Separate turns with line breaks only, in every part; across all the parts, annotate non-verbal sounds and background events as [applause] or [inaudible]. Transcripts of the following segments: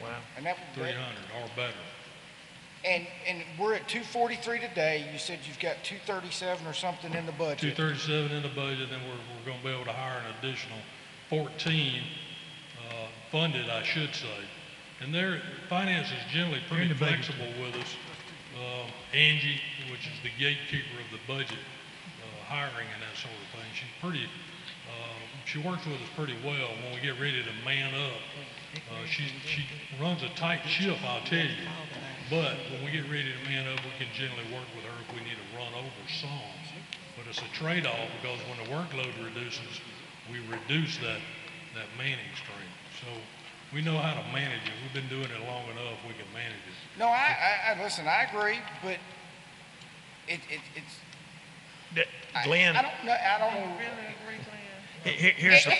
Wow.
And that,
three hundred or better.
and, and we're at two forty-three today. You said you've got two thirty-seven or something in the
Two
budget.
thirty-seven in the budget, then we're, we're gonna be able to hire an additional fourteen, uh, funded, I should say. And their finance is generally pretty
the budget.
flexible with us. Um, Angie, which is the gatekeeper of the budget, uh, hiring and that sort of thing, she's pretty, uh, she works with us pretty well when we get ready to man up. Uh, she, she runs a tight ship, I'll tell you. But when we get ready to man up, we can generally work with her if we need to run over some. But it's a trade-off because when the workload reduces, we reduce that, that manning stream. So we know how to manage it. We've been doing it long enough. We can manage it.
No, I, I, I, listen, I agree, but it, it, it's.
Th-
I-
Glenn,
I don't know, I don't know.
he- he-
[laughs]
here's the,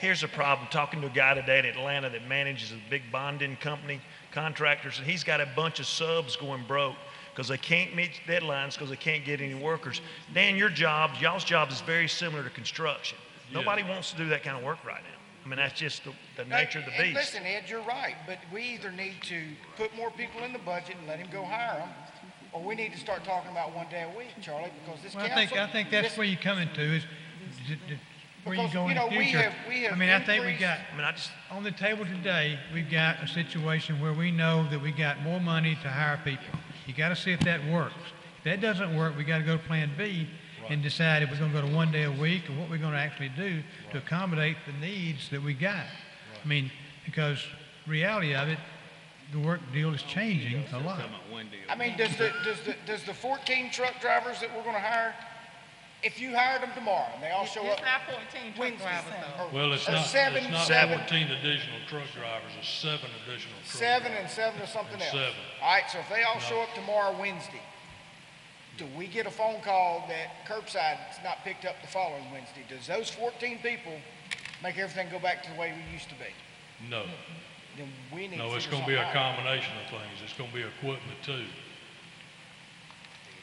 here's the problem. Talking to a guy today in Atlanta that manages a big bonding company, contractors, and he's got a bunch of subs going broke because they can't meet deadlines because they can't get any workers. Dan, your job, y'all's job is very similar to construction. Nobody wants to do that kind of work right now. I mean, that's just the, the nature of the
And
beast.
Listen, Ed, you're right, but we either need to put more people in the budget and let him go hire them, or we need to start talking about one day a week, Charlie, because this
Well, I
council.
think, I think that's
this-
where you're coming to is d- d- where you
Because,
go in
you
the
know, we
future.
have- we have
I mean, I think we
increased-
got,
I mean, I just,
on the table today, we've got a situation where we know that we got more money to hire people. You gotta see if that works. If that doesn't work, we gotta go to Plan B and decide if we're gonna go to one day a week or what we're gonna actually do to accommodate the needs that we got. I mean, because reality of it, the work deal is changing a lot.
I mean, does the, does the, does the fourteen truck drivers that we're gonna hire, if you hired them tomorrow and they all show up
It's not fourteen truck
Wednesday,
drivers though.
or-
Well, it's
or
not,
Uh, seven-
it's not
seven-
fourteen additional truck drivers, it's seven additional truck
Seven
drivers.
and seven or something
And
else.
seven.
All right, so if they all show up tomorrow, Wednesday, do we get a phone call that curbside's not picked up the following Wednesday? Does those fourteen people make everything go back to the way we used to be?
No,
Then we need to
no, it's
figure
gonna be a
something out.
combination of things. It's gonna be equipment too.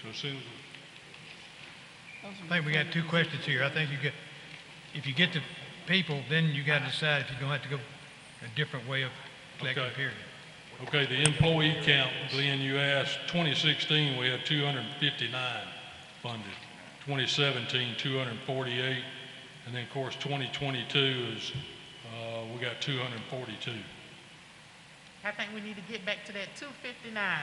So as soon as, we-
I think we got two questions here. I think you get, if you get the people, then you gotta decide if you're gonna have to go a different way of collecting
Okay.
period.
okay, the employee count, Glenn, you asked, twenty sixteen, we had two hundred and fifty-nine funded. 2017, 248, and then, of course, twenty twenty-two is, uh, we got two hundred and forty-two.
I think we need to get back to that two fifty-nine.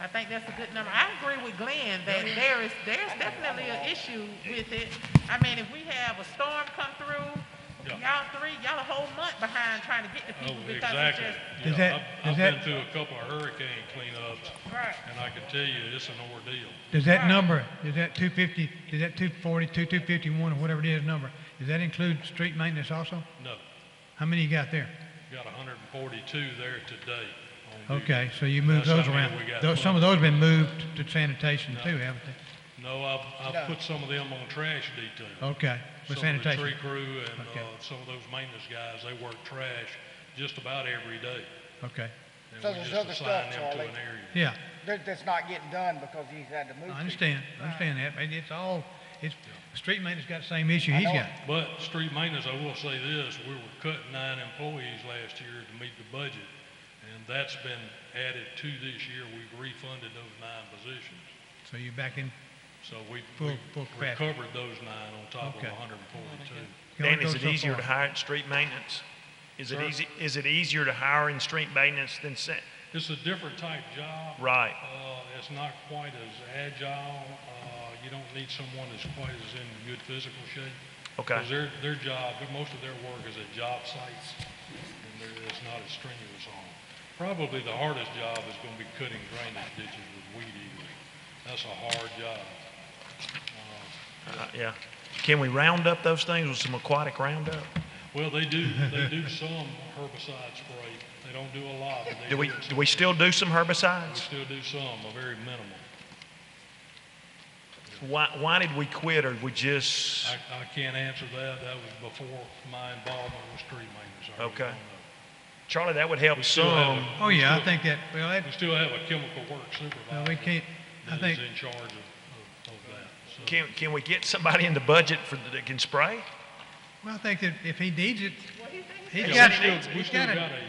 I think that's a good number. I agree with Glenn that there is, there's definitely an issue with it. I mean, if we have a storm come through, y'all three, y'all a whole month behind trying to get the
Oh,
people because it's
exactly.
just.
You
Does
know,
that-
I've-
does
I've
that-
been through a couple of hurricane cleanups,
Right.
and I can tell you, it's an ordeal.
Does that number, is that two fifty, is that two forty-two, two fifty-one, or whatever it is number, does that include street maintenance also?
No,
How many you got there?
got hundred and forty-two there today. on duty.
Okay, so you moved
That's
those
how many
around.
we got.
Those- Some of those have been moved to sanitation too, haven't they?
No, I've,
No.
I've put some of them on trash detail.
Okay, Oh, with
Some of the
sanitation.
tree crew and,
Okay.
uh, some of those maintenance guys, they work trash just about every day.
Okay,
And
So
we
there's
just
other stuff,
assign them to
Charlie.
an area.
yeah,
That, that's not getting done because he's had to move. people.
I understand, I understand that, but it's all, it's, street maintenance got the same issue he's
know.
got.
But street maintenance, I will say this, we were cutting nine employees last year to meet the budget, and that's been added to this year. We've refunded those nine positions.
So you're back in,
So we
Full-
we
full capacity.
recovered those nine on top of
Okay.
142.
you only
Dan, is
go
it
so
easier
far.
to hire in street maintenance? Is it
Sir?
easy, is it easier to hire in street maintenance than, sa-
It's a different type job.
right?
Uh, It's not quite as agile. Uh, You don't need someone that's quite as in good physical shape.
Okay.
Because their, their job, most of their work is at job sites, and there- it's not as strenuous on them. Probably the hardest job is going to be cutting drainage ditches with weed eater. That's a hard job.
Uh, Yeah. Can we round up those things with some aquatic roundup?
Well, they do, they
[laughs]
do some herbicide spray. They don't do a lot, but they
Do we,
it
do we
some.
still do some
We
herbicides?
still do some, a very minimal.
Why, why did we quit or we just,
I, I can't answer that. That was before my involvement with street maintenance. I really
Okay.
don't know.
Charlie, that would help
We still have
some.
a-
Oh,
we
yeah, I
still-
think that, well, that,
We still have a chemical work
no, we
supervisor
can't, I
that is
think,
in charge of, of of that. So-
Can, can we get somebody in the budget for, that can spray?
well, I think that if he needs it,
What do you think?
he's
Yeah,
got
we
it.
still- We
He's
still
got it.
got a